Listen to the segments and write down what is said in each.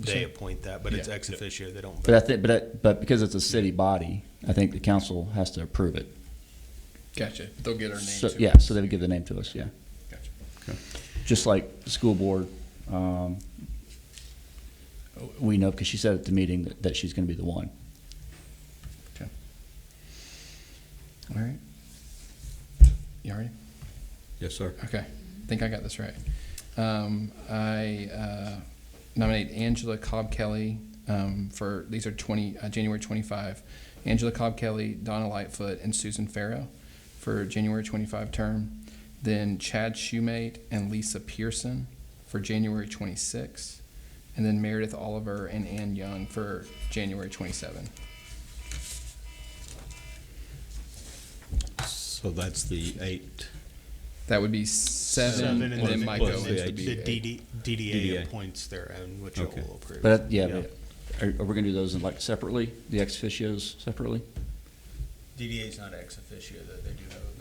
they appoint that, but it's Yeah. ex officio, they don't. But I vote. think, but, I- but because it's a city body, I think the council has to approve it. Gotcha. They'll get our name So, too. yeah, so they would give the name to us, yeah. Gotcha. Just like the school board, um, we know, because she said at the meeting that, that she's gonna be the one. Okay. All right. You all right? Yes, sir. Okay, think I got this right. Um, I uh, nominate Angela Cobb Kelly um, for these are 20 uh, January 25. Angela Cobb Kelly, Donna Lightfoot, and Susan Farrow for January 25 term. Then Chad Shoemate and Lisa Pearson for January 26. And then Meredith Oliver and Ann Young for January 27. So that's the eight. That would be seven, and, and then then Mike plus Owens the would be The eight. DD, DDA DDA. appoints their own, which it Okay. will approve. But, I- yeah, but are, are we gonna do those in like separately, the ex officios separately? DDA is not ex officio, though, they do have a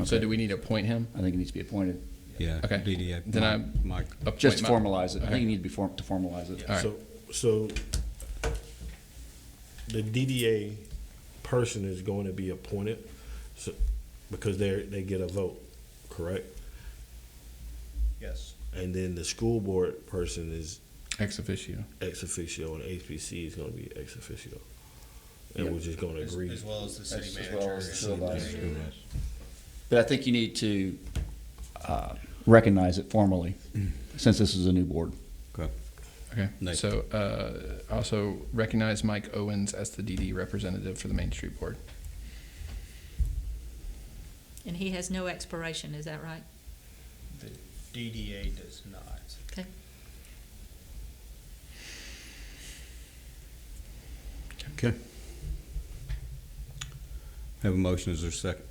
vote. So Okay. do we need to appoint him? I think it needs to be appointed, Yeah. Okay. DDA. Then I- Mike. Appoint just to Mike- formalize it. I Okay. think you need to be form, to formalize it. All right. So, so the DDA person is going to be appointed, so, because they're, they get a vote, correct? Yes. And then the school board person is Ex officio. ex officio, and HPC is gonna be ex officio. And we're just gonna agree. well as the As- as well as the and- supervisor. But I think you need to, uh, recognize it formally, since this is a new board. Okay. Okay. Nice. So uh, also recognize Mike Owens as the DD representative for the Main Street Board. And he has no expiration, is that right? The DDA does not. Okay. Okay. Have a motion, is there a second?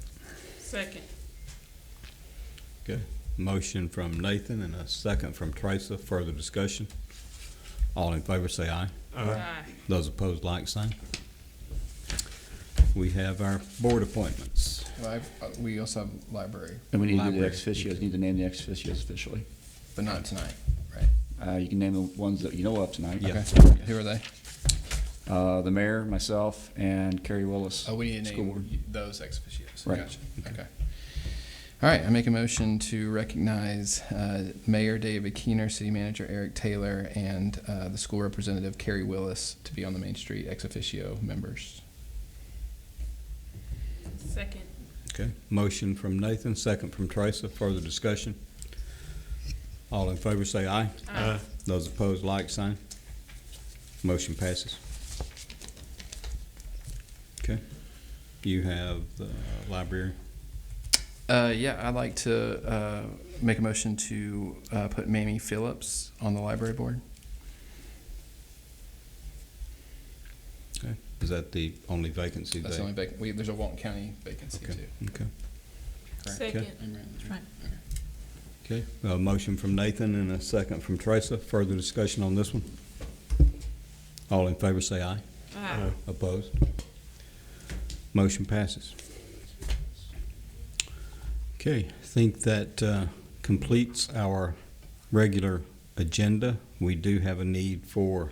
Second. Okay. Motion from Nathan and a second from Teresa, further discussion. All in favor, say aye. Aye. Those opposed, like sign. We have our board appointments. Live, uh, we also have library, And we need to do the Library. ex officios, need to name the ex officios officially. but not tonight. Uh, you can name the ones that you know of tonight. Yeah. Okay. Who are they? Uh, the mayor, myself, and Kerry Willis. Oh, we need to School board. name those ex officios. Right. Gotcha. Okay. All right. I make a motion to recognize uh, Mayor David Keener, City Manager Eric Taylor, and uh, the school representative Carrie Willis to be on the Main Street ex officio members. Second. Okay. Motion from Nathan, second from Teresa, further discussion. All in favor, say aye. Aye. Those opposed, like sign. Motion passes. Okay. You have the library. Uh, yeah, I'd like to uh, make a motion to uh, put Mamie Phillips on the library board. Okay. Is that the only vacancy That's the there? only vac We, there's a Walton County vacancy Okay. too. Okay. Second. Right. Okay. A motion from Nathan and a second from Teresa. Further discussion on this one? All in favor, say aye. Aye. Opposed? Motion passes. Okay, I think that uh, completes our regular agenda. We do have a need for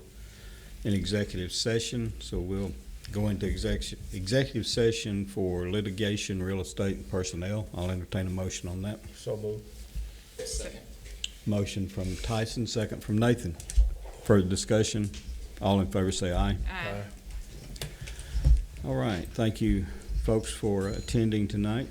an executive session, so we'll go into exec- executive session for litigation, real estate, and personnel. I'll entertain a motion on that. So moved. Motion from Tyson, second from Nathan. Further discussion? All in favor, say aye. Aye. All right, thank you, folks, for attending tonight.